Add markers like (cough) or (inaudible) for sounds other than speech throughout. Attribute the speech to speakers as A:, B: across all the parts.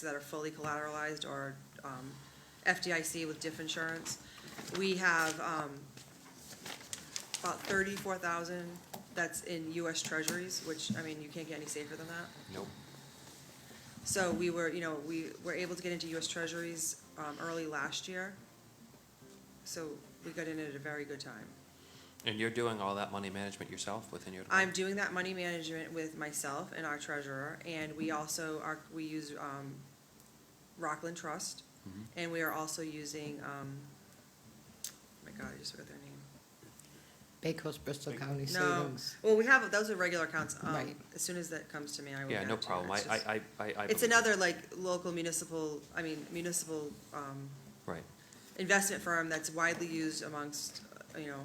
A: that are fully collateralized or um, FDIC with diff insurance. We have um, about thirty-four thousand that's in US Treasuries, which, I mean, you can't get any safer than that.
B: Nope.
A: So we were, you know, we were able to get into US Treasuries um, early last year. So we got in at a very good time.
B: And you're doing all that money management yourself within your
A: I'm
B: department?
A: doing that money management with myself and our treasurer, and
B: Mm-hmm.
A: we also are, we use um, Rockland Trust,
B: Mm-hmm.
A: and we are also using, um, oh my God, I just forgot their name.
C: Bay Coast Bristol County
A: No,
C: Savings.
A: well, we have, those are regular accounts. Um,
C: Right.
A: As soon as that comes to me, I will.
B: Yeah,
A: get
B: no
A: it to you.
B: problem. I,
A: It's just-
B: I, I- I, I.
A: It's
B: believe-
A: another like local municipal, I mean municipal um,
B: Right.
A: investment firm that's widely used amongst, uh, you know,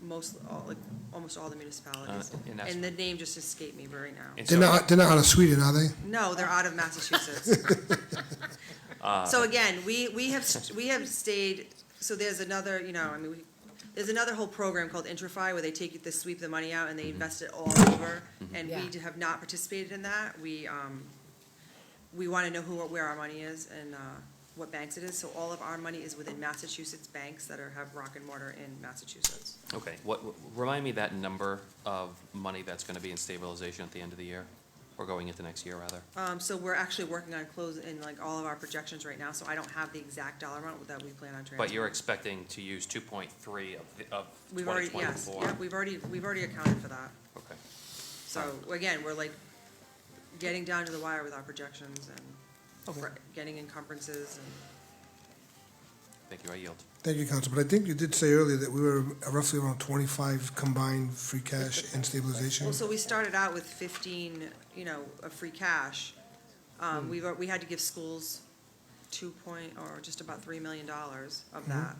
A: most, all, like, almost all the municipalities.
B: Uh, and that's-
A: And the name just escaped me right now.
B: And
D: They're
B: so-
D: not, they're not out of Sweden, are they?
A: No, they're out of Massachusetts.
B: (laughs) Uh,
A: So again, we, we have, st- we have stayed, so there's another, you know, I mean, we, there's another whole program called Intrify where they take the sweep the money out and
B: Mm-hmm.
A: they invest it all over. And
C: Yeah.
A: we do- have not participated in that. We, um, we want to know who, or where our money is and, uh, what banks it is. So all of our money is within Massachusetts banks that are, have rock and mortar in Massachusetts.
B: Okay, what, remind me that number of money that's gonna be in stabilization at the end of the year, or going into next year, rather?
A: Um, so we're actually working on closing, in like all of our projections right now, so I don't have the exact dollar amount that we plan on transferring.
B: But you're expecting to use two point three of, the- of
A: We've already,
B: twenty twenty-four?
A: yes, yeah, we've already, we've already accounted for that.
B: Okay,
A: So again, we're like getting down to the wire with our projections and fr- getting encumbrances and,
B: thank you, I yield.
D: Thank you, Council. But I think you did say earlier that we were roughly around twenty-five combined free cash and stabilization.
A: well, so we started out with fifteen, you know, of free cash.
B: Hmm.
A: Um, we've, al- we had to give schools two point, or just about three million dollars
B: Hmm.
A: of that.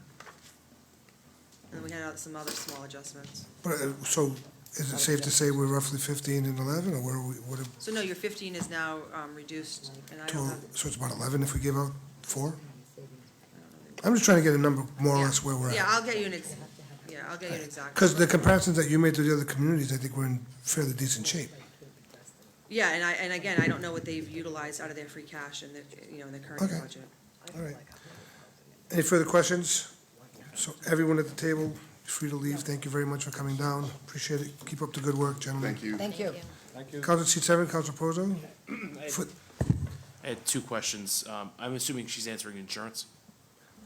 A: And then we had out some other small adjustments.
D: But, uh, so is it safe to say we're roughly fifteen and eleven, or where we, what, if-
A: So no, your fifteen is now, um, reduced, and I
D: to-
A: don't have,
D: so it's about eleven if we give out four? I'm just trying to get a number more or
A: Yeah.
D: less where we're
A: yeah,
D: at.
A: I'll get you an ex, yeah, I'll get you an exact.
D: Because the comparisons that you made to the other communities, I think we're in fairly decent shape.
A: Yeah, and I, and again, I don't know what they've utilized out of their free cash in the, you know, in the current
D: Okay.
A: budget.
D: All right. Any further questions? So everyone at the table, you're free to leave. Thank you very much for coming down. Appreciate it. Keep up the good work, gentlemen.
E: Thank you.
C: Thank you.
D: Council seat seven, Council Prozo? For-
F: I had two questions. Um, I'm assuming she's answering insurance.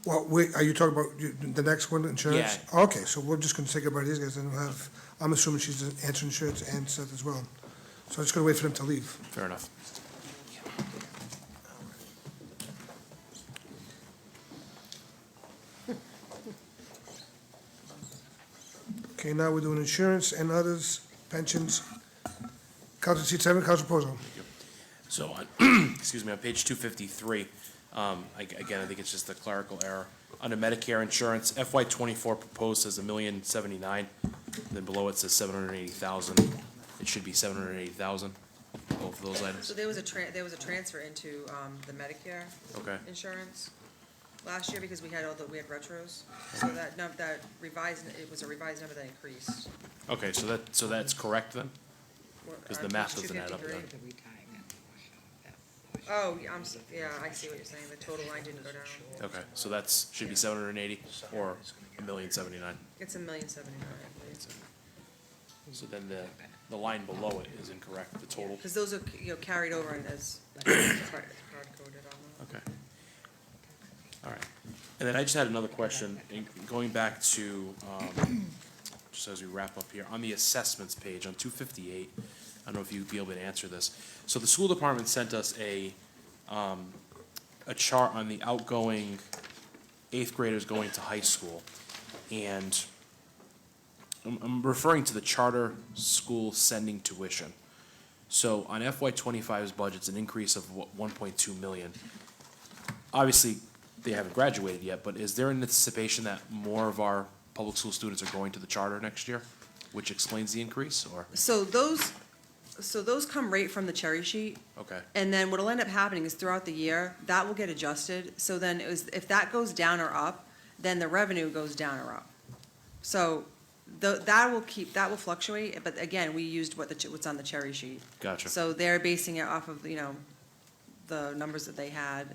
D: Well, wait, are you talking about you- the next one, insurance?
F: Yeah.
D: Okay, so we're just gonna say goodbye to these guys, and we'll have, I'm assuming she's answering insurance and Seth as well. So I'm just gonna wait for them to leave.
F: Fair enough.
D: Okay, now we're doing insurance and others, pensions. Council seat seven, Council Prozo.
F: So on, (clears throat) excuse me, on page two fifty-three, um, I, again, I think it's just a clerical error. Under Medicare insurance, FY twenty-four proposed says a million seventy-nine, then below it says seven hundred eighty thousand. It should be seven hundred eighty thousand, both of those
A: So
F: items.
A: there was a tran, there was a transfer into, um, the Medicare
F: Okay,
A: insurance last year because we had all the, we had retros. So that, num that revised, it was a revised number that increased.
F: okay, so that, so that's correct then?
A: We're-
F: 'Cause
A: uh,
F: the math
A: page
F: doesn't add up
A: 253.
F: then.
A: Oh, yeah, I'm, s- yeah, I see what you're saying, the total line didn't go down.
F: Okay, so that's, should be seven hundred eighty or a million seventy-nine.
A: It's a million seventy-nine, I believe.
F: So then the, the line below it is incorrect, the total.
A: Because those are, you know, carried over and as
F: (coughs)
A: hard hard coded on
F: Okay. All right. And then I just had another question, in- going back to, um, just as we wrap up here, on the assessments page on two fifty-eight, I don't know if you'd be able to answer this. So the school department sent us a, um, a chart on the outgoing eighth graders going to high school. And I'm, I'm referring to the charter school sending tuition. So on FY 25s budget, it's an increase of wha- 1.2 million. Obviously, they haven't graduated yet, but is there an anticipation that more of our public school students are going to the charter next year, which explains the increase, or,
A: that. So those, so those come right from the cherry sheet.
F: okay,
A: And then what'll end up happening is throughout the year, that will get adjusted. So then it was, if that goes down or up, then the revenue goes down or up. So tho- that will keep, that will fluctuate, but again, we used what the, ch- what's on the cherry sheet.
F: Gotcha.
A: So they're basing it off of, you know, the numbers that they had